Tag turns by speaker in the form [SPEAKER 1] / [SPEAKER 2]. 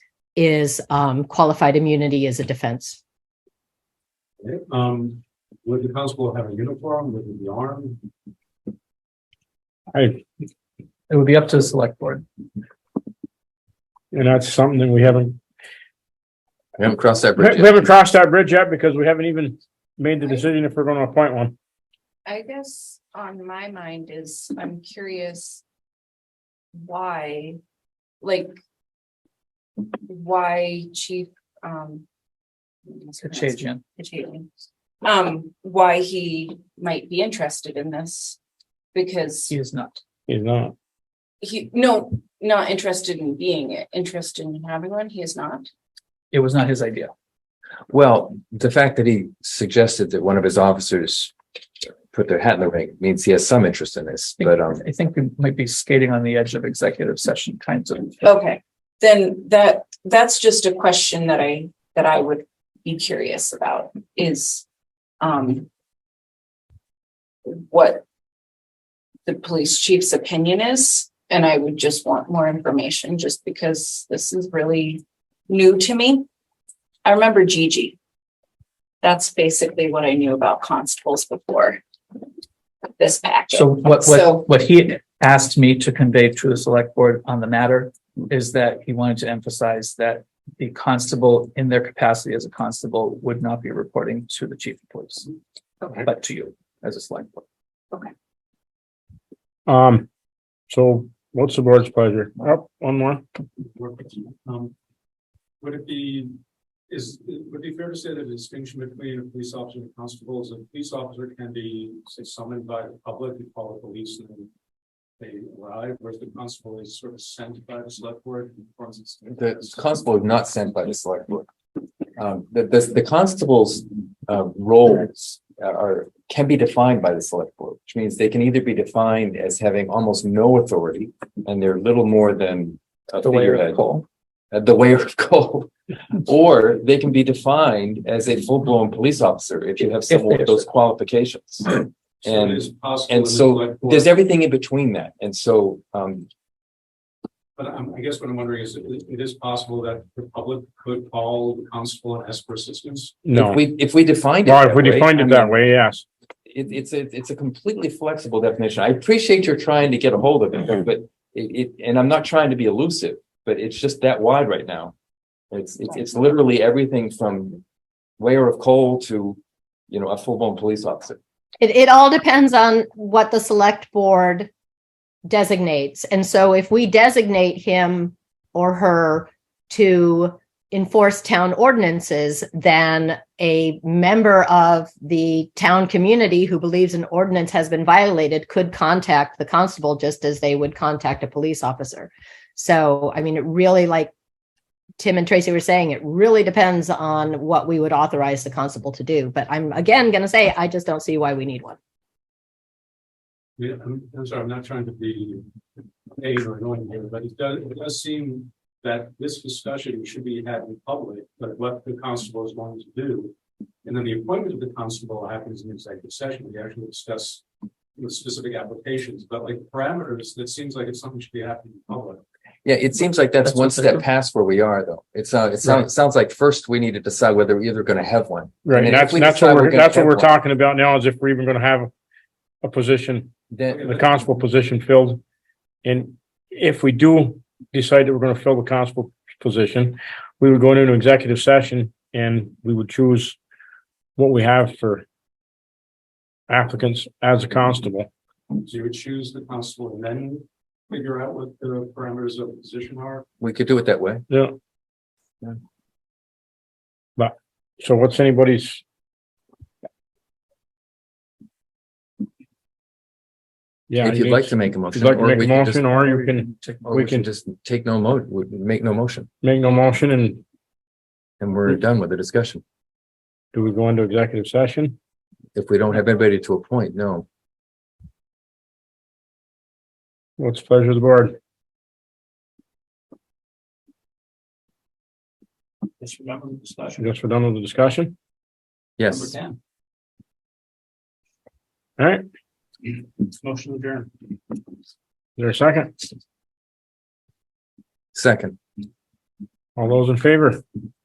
[SPEAKER 1] is um, qualified immunity as a defense.
[SPEAKER 2] Um, would the constable have a uniform? Would it be armed?
[SPEAKER 3] I,
[SPEAKER 4] It would be up to the select board.
[SPEAKER 3] and that's something that we haven't,
[SPEAKER 5] We haven't crossed that
[SPEAKER 3] we
[SPEAKER 5] bridge yet.
[SPEAKER 3] haven't crossed that bridge yet because we haven't even made the decision if we're gonna appoint one.
[SPEAKER 6] I guess on my mind is, I'm curious. Why, like. Why chief, um.
[SPEAKER 4] Kachajian.
[SPEAKER 6] Kachajian, Um, why he might be interested in this. Because
[SPEAKER 4] He is not.
[SPEAKER 3] He's not.
[SPEAKER 6] he, no, not interested in being it, interested in having one, he is not.
[SPEAKER 4] It was not his idea.
[SPEAKER 5] Well, the fact that he suggested that one of his officers put their hat in the ring means he has some interest in this, but, um,
[SPEAKER 4] I think we might be skating on the edge of executive session kinds of.
[SPEAKER 6] Okay, then that, that's just a question that I, that I would be curious about is, um. What. The police chief's opinion is, and I would just want more information just because this is really new to me. I remember Gigi. That's basically what I knew about constables before. This package.
[SPEAKER 4] So what,
[SPEAKER 6] So-
[SPEAKER 4] what, what he asked me to convey to the select board on the matter is that he wanted to emphasize that the constable in their capacity as a constable would not be reporting to the chief of police,
[SPEAKER 6] Okay.
[SPEAKER 4] but to you as a select board.
[SPEAKER 3] Um, so what's the board's pleasure? Up, one more.
[SPEAKER 2] Um, Would it be, is, would it be fair to say that the distinction between a police officer and a constable is a police officer can be, say, summoned by the public, you call the police and then they arrive, whereas the constable is sort of sent by the select board. and performs its-
[SPEAKER 5] the constable is not sent by the select board. Um, the, the, the constable's, uh, roles uh, are, can be defined by the select board, which means they can either be defined as having almost no authority and they're little more than a
[SPEAKER 4] The way
[SPEAKER 5] figurehead.
[SPEAKER 4] of Cole.
[SPEAKER 5] uh, the way of coal. Or they can be defined as a full-blown police officer if you have someone with those qualifications.
[SPEAKER 2] So it
[SPEAKER 5] And-
[SPEAKER 2] is possible.
[SPEAKER 5] And
[SPEAKER 2] that the
[SPEAKER 5] so
[SPEAKER 2] select board-
[SPEAKER 5] there's everything in between that. And so, um,
[SPEAKER 2] But I'm, I guess what I'm wondering is, it it is possible that the public could call the constable and ask for assistance?
[SPEAKER 3] No.
[SPEAKER 5] if we, if we defined it.
[SPEAKER 3] Well, if we
[SPEAKER 5] that way,
[SPEAKER 3] defined
[SPEAKER 5] I
[SPEAKER 3] it that
[SPEAKER 5] mean,
[SPEAKER 3] way, yes.
[SPEAKER 5] It, it's, a- it's a completely flexible definition. I appreciate you're trying to get a hold of it, but it, it, and I'm not trying to be elusive, but it's just that wide right now. It's, it's, it's literally everything from layer of coal to, you know, a full-blown police officer.
[SPEAKER 1] It, it all depends on what the select board designates. And so if we designate him or her to enforce town ordinances, then a member of the town community who believes an ordinance has been violated could contact the constable just as they would contact a police officer. So, I mean, it really, like Tim and Tracy were saying, it really depends on what we would authorize the constable to do. But I'm again going to say, I just don't see why we need one.
[SPEAKER 2] Yeah, I'm, I'm sorry, I'm not trying to be vague or annoying here, but it does, it does seem that this discussion should be had in public, but what the constable is wanting to do. And then the appointment of the constable happens in executive session, we actually discuss the specific applications, but like parameters, that seems like it's something should be happening in public.
[SPEAKER 5] Yeah, it seems like that's
[SPEAKER 4] That's
[SPEAKER 5] one
[SPEAKER 4] what they
[SPEAKER 5] step
[SPEAKER 4] do.
[SPEAKER 5] past where we are, though. It sounds, it
[SPEAKER 4] Right.
[SPEAKER 5] sounds, sounds like first we need to decide whether we're either gonna have one.
[SPEAKER 3] Right.
[SPEAKER 5] And if
[SPEAKER 3] That's,
[SPEAKER 5] we
[SPEAKER 3] that's
[SPEAKER 5] decide
[SPEAKER 3] what
[SPEAKER 5] we're
[SPEAKER 3] we're,
[SPEAKER 5] gonna
[SPEAKER 3] that's what
[SPEAKER 5] have
[SPEAKER 3] we're
[SPEAKER 5] one.
[SPEAKER 3] talking about now is if we're even gonna have a position,
[SPEAKER 5] Then,
[SPEAKER 3] the constable position filled. And if we do decide that we're gonna fill the constable position, we would go into an executive session and we would choose what we have for applicants as a constable.
[SPEAKER 2] So you would choose the constable and then figure out what the parameters of the position are.
[SPEAKER 5] we could do it that way.
[SPEAKER 3] Yeah.
[SPEAKER 5] Yeah.
[SPEAKER 3] But, so what's anybody's? Yeah.
[SPEAKER 5] If
[SPEAKER 3] you-
[SPEAKER 5] you'd like to make a
[SPEAKER 3] If you'd
[SPEAKER 5] motion.
[SPEAKER 3] like to
[SPEAKER 5] or
[SPEAKER 3] make
[SPEAKER 5] we
[SPEAKER 3] a
[SPEAKER 5] could just-
[SPEAKER 3] motion, or you can
[SPEAKER 5] Or
[SPEAKER 3] we
[SPEAKER 5] Oh, we can
[SPEAKER 3] can-
[SPEAKER 5] just take no mo, we make no motion
[SPEAKER 3] make no motion and
[SPEAKER 5] and we're done with the discussion.
[SPEAKER 3] do we go into executive session?
[SPEAKER 5] If we don't have anybody to appoint, no.
[SPEAKER 3] What's the pleasure of the board?
[SPEAKER 2] Just remember the
[SPEAKER 3] I
[SPEAKER 2] discussion.
[SPEAKER 3] guess we're done with the discussion.
[SPEAKER 5] Yes.
[SPEAKER 3] All right, is
[SPEAKER 2] Motion adjourned.
[SPEAKER 3] there a second?
[SPEAKER 5] Second.
[SPEAKER 3] All those in favor?